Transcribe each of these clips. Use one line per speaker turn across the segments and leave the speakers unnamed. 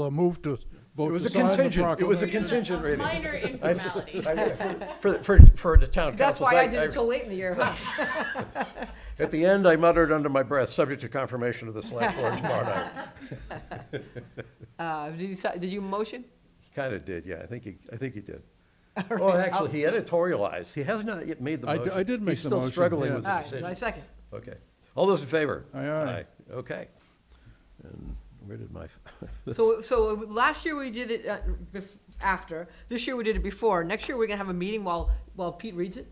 a uh, move to
It
vote
was
to
a
sign the
contingent, it was a
proclamation.
contingent rating.
Minor
I s-
informality.
I- For, for, for the town council.
That's why I did it so late in the year, huh?
At the end, I muttered under my breath, subject to confirmation of the select board tomorrow night.
Uh, Did you, si- did you motion?
Kind of did, yeah, I think he, I think he did. Oh, actually, he editorialized, he has not yet made the
I d-
motion.
I did make the
He's still
motion,
struggling
yeah.
with the
All right, my
decision.
second.
Okay, all those in favor?
Aye, aye.
Okay. And where did my,
So, so last year we did it uh, bef- after, this year we did it before, next year we're gonna have a meeting while, while Pete reads it?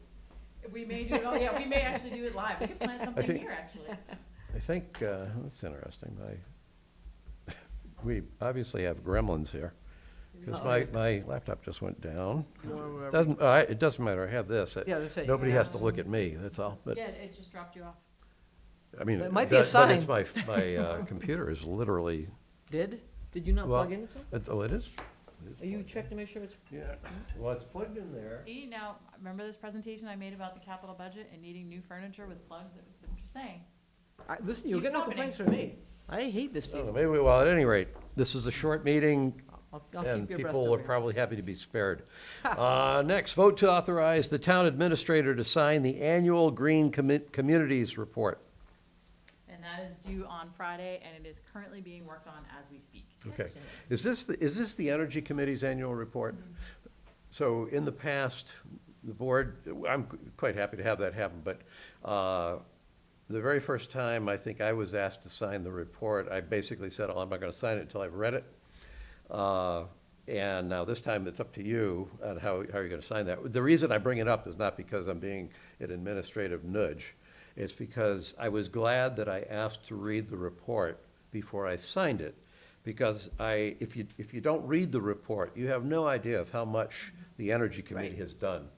We may do it, oh, yeah, we may actually do it live. We could plan something
think-
here, actually.
I think, uh, that's interesting, I, we obviously have gremlins here, because my, my laptop just went down. Doesn't, I- it doesn't matter, I have this. It-
Yeah, that's it.
Nobody has to look at me, that's all, but,
Yeah, it just dropped you off.
I mean.
It might be a
that- But it's my,
sign.
my uh, computer is literally,
Did? Did you not
Well-
plug in something?
it's- oh, it is?
Are you checking to make sure it's?
Yeah, well, it's plugged in there.
See, now, remember this presentation I made about the capital budget and needing new furniture with plugs? It's what you're saying.
I- Listen, you'll
Keeps
get no
happening.
complaints from me. I hate this
So
table.
Oh, Maybe, we- well, at any rate, this is a short meeting,
I'll I'll
and
keep your breast
people
over
are
here.
probably happy to be spared. Uh, Next, vote to authorize the town administrator to sign the annual Green Commu- Communities Report.
And that is due on Friday, and it is currently being worked on as we speak.
Okay. Is this, the- is this the Energy Committee's annual report? So in the past, the board, I'm quite happy to have that happen, but uh, the very first time I think I was asked to sign the report, I basically said, oh, I'm not going to sign it until I've read it. Uh, And now this time, it's up to you on how, how you're going to sign that. The reason I bring it up is not because I'm being an administrative nudge. It's because I was glad that I asked to read the report before I signed it. Because I, if you, if you don't read the report, you have no idea of how much the Energy Committee has done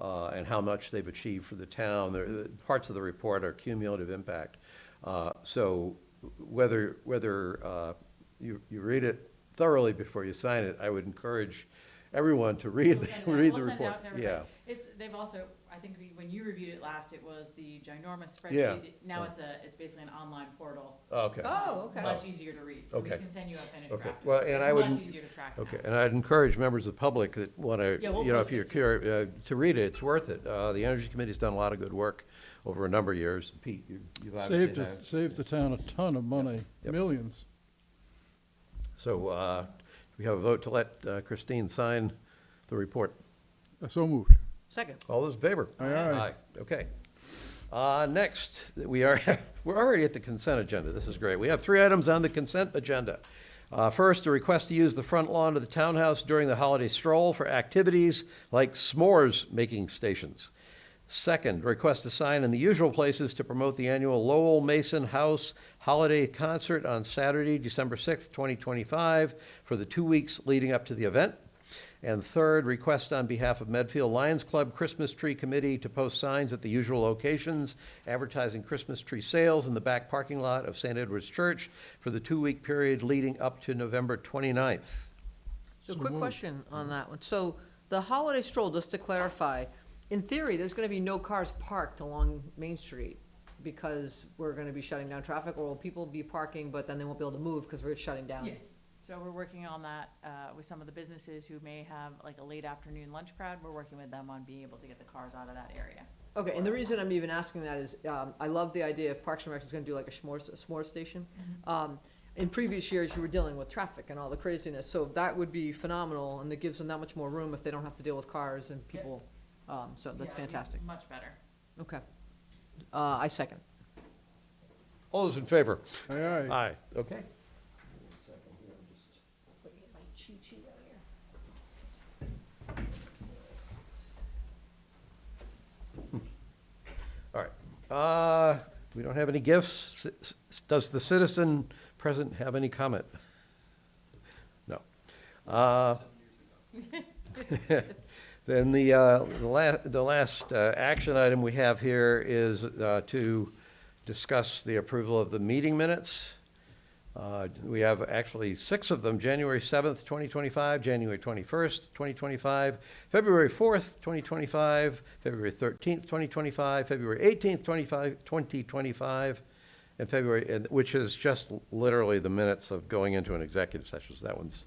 uh, and how much they've achieved for the town. There- the- Parts of the report are cumulative impact. Uh, So whether, whether uh, you, you read it thoroughly before you sign it, I would encourage everyone to read,
We'll
the-
send it out.
read the
We'll send it
report.
out to everybody.
Yeah,
It's, they've also, I think we- when you reviewed it last, it was the ginormous
Yeah.
spreadsheet. Now it's a, it's basically an online portal.
okay.
Oh, okay.
Much easier to read. So we
Okay.
can send you a finished
Okay.
draft.
Well, and
It's
I would-
Much easier to track now.
Okay, and I'd encourage members of the public that want to,
Yeah, we'll
you know,
post
if
it
you're
too.
curious, to read it, it's worth it. Uh, The Energy Committee's done a lot of good work over a number of years. Pete, you- you've obviously.
Saved,
known.
it- saved the town a ton of money,
Yep.
millions.
So uh, do we have a vote to let uh, Christine sign the report.
So moved.
Second.
All those in favor?
Aye, aye.
Okay. Uh, Next, we are, we're already at the consent agenda. This is great. We have three items on the consent agenda. Uh, First, a request to use the front lawn of the townhouse during the holiday stroll for activities like s'mores making stations. Second, request a sign in the usual places to promote the annual Lowell Mason House Holiday Concert on Saturday, December 6th, 2025, for the two weeks leading up to the event. And third, request on behalf of Medfield Lions Club Christmas Tree Committee to post signs at the usual locations advertising Christmas tree sales in the back parking lot of St. Edward's Church for the two-week period leading up to November 29th.
So quick question on that one. So the holiday stroll, just to clarify, in theory, there's gonna be no cars parked along Main Street because we're gonna be shutting down traffic, or will people be parking, but then they won't be able to move because we're shutting down?
Yes, so we're working on that uh, with some of the businesses who may have like a late afternoon lunch crowd. We're working with them on being able to get the cars out of that area.
Okay, and the reason I'm even asking that is, um, I love the idea if Parks and Rec is gonna do like a s'mores, a s'more station.
Mm-hmm.
Um, in previous years, you were dealing with traffic and all the craziness, so that would be phenomenal, and it gives them that much more room if they don't have to deal with cars and people. Um, so that's
Yeah, it'd be
fantastic.
Much better.
Okay. Uh, I second.
All those in favor?
Aye, aye.
Aye. Okay. All right. Uh, We don't have any gifts. S- s- Does the citizen present have any comment? No. Uh, Then the, uh, the last, the last uh, action item we have here is uh, to discuss the approval of the meeting minutes. Uh, We have actually six of them, January 7th, 2025, January 21st, 2025, February 4th, 2025, February 13th, 2025, February 18th, 25 2025, in February, and, which is just literally the minutes of going into an executive session, so that one's